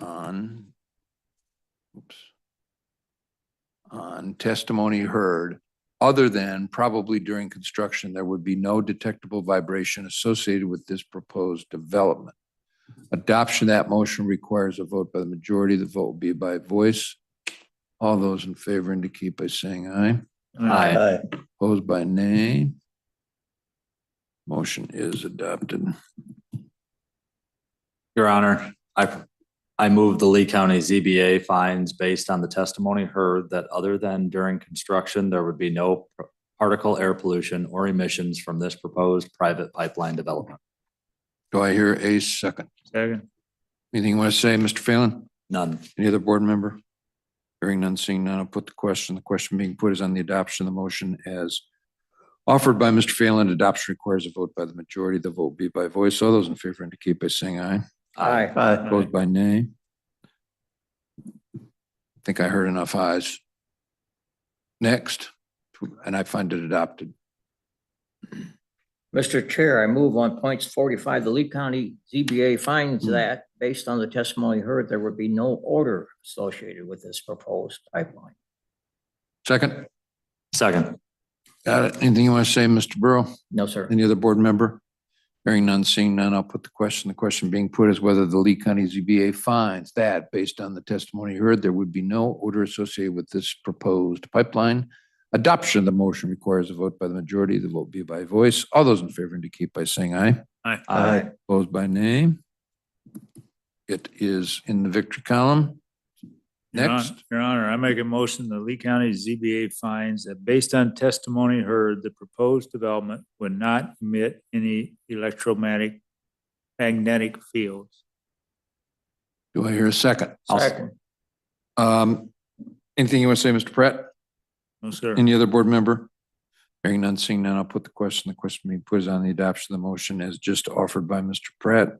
on oops, on testimony heard, other than probably during construction, there would be no detectable vibration associated with this proposed development. Adoption of that motion requires a vote by the majority. The vote will be by voice. All those in favor indicate by saying aye. Aye. Opposed by nay. Motion is adopted. Your Honor, I, I move the Lee County ZBA finds based on the testimony heard that other than during construction, there would be no particle air pollution or emissions from this proposed private pipeline development. Do I hear a second? Second. Anything you want to say, Mr. Phelan? None. Any other board member? Hearing none, seeing none, I'll put the question. The question being put is on the adoption of the motion as offered by Mr. Phelan. Adoption requires a vote by the majority. The vote be by voice. All those in favor indicate by saying aye. Aye. Opposed by nay. I Think I heard enough ayes. Next, and I find it adopted. Mr. Chair, I move on points forty-five, the Lee County ZBA finds Hmm. that based on the testimony heard, there would be no order associated with this proposed pipeline. Second, Second. got it? Anything you want to say, Mr. Burrow? No, sir. Any other board member? Hearing none, seeing none, I'll put the question. The question being put is whether the Lee County ZBA finds that, based on the testimony heard, there would be no order associated with this proposed pipeline. Adoption of the motion requires a vote by the majority. The vote be by voice. All those in favor indicate by saying aye. Aye. Opposed by nay. It is in the victory column. Your Hon- Next, Your Honor, I make a motion, the Lee County ZBA finds that based on testimony heard, the proposed development would not emit any electromagnetic magnetic fields. do I hear a second? I'll s- Second. Um, anything you want to say, Mr. Pratt? No, sir. Any other board member? Hearing none, seeing none, I'll put the question. The question being put is on the adoption of the motion as just offered by Mr. Pratt.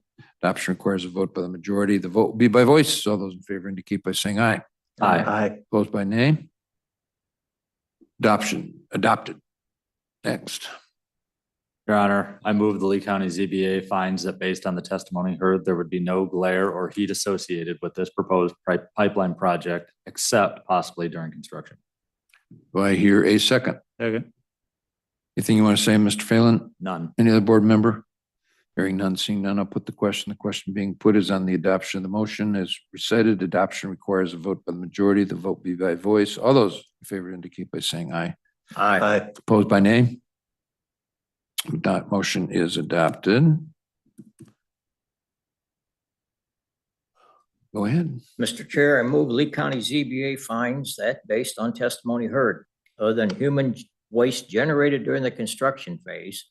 Adoption requires a vote by the majority. The vote will be by voice. All those in favor indicate by saying aye. Aye. Opposed by nay? Adoption, adopted. Next, Your Honor, I move the Lee County ZBA finds that based on the testimony heard, there would be no glare or heat associated with this proposed pri- pipeline project, except possibly during construction. do I hear a second? Second. Anything you want to say, Mr. Phelan? None. Any other board member? Hearing none, seeing none, I'll put the question. The question being put is on the adoption of the motion as recited. Adoption requires a vote by the majority. The vote be by voice. All those in favor indicate by saying aye. Aye. Opposed by nay? That motion is adopted. Go ahead. Mr. Chair, I move Lee County ZBA finds that based on testimony heard, other than human waste generated during the construction phase,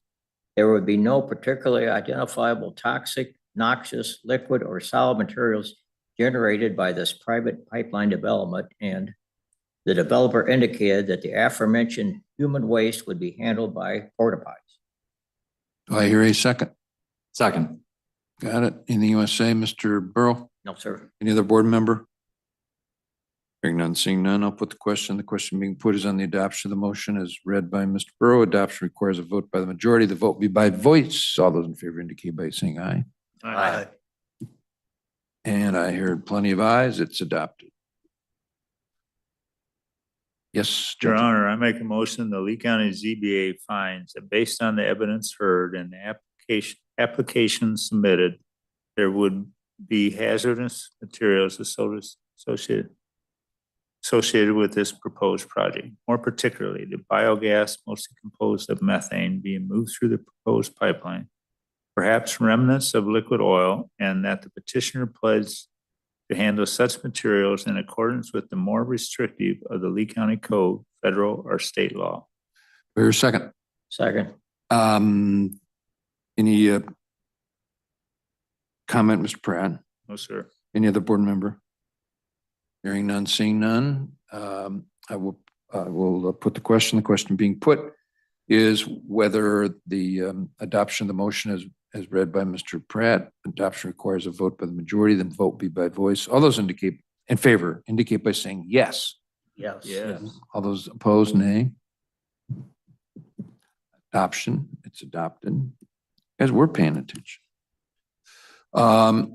there would be no particularly identifiable toxic, noxious, liquid, or solid materials generated by this private pipeline development, and the developer indicated that the aforementioned human waste would be handled by porta potties. Do I hear a second? Second. Got it. Anything you want to say, Mr. Burrow? No, sir. Any other board member? Hearing none, seeing none, I'll put the question. The question being put is on the adoption of the motion as read by Mr. Burrow. Adoption requires a vote by the majority. The vote be by voice. All those in favor indicate by saying aye. Aye. And I heard plenty of ayes. It's adopted. Yes. Your Judge. Honor, I make a motion, the Lee County ZBA finds that based on the evidence heard and the application, application submitted, there would be hazardous materials associ- associated, associated with this proposed project. More particularly, the biogas mostly composed of methane being moved through the proposed pipeline, perhaps remnants of liquid oil, and that the petitioner pledged to handle such materials in accordance with the more restrictive of the Lee County Code, federal or state law. Hear a second. Second. Um, any, uh, comment, Mr. Pratt? No, sir. Any other board member? Hearing none, seeing none, um, I will, I will uh, put the question. The question being put is whether the, um, adoption of the motion is, as read by Mr. Pratt, adoption requires a vote by the majority, then vote be by voice. All those indicate in favor, indicate by saying yes. Yes. All those opposed, nay. Adoption, it's adopted, as we're paying attention. Um,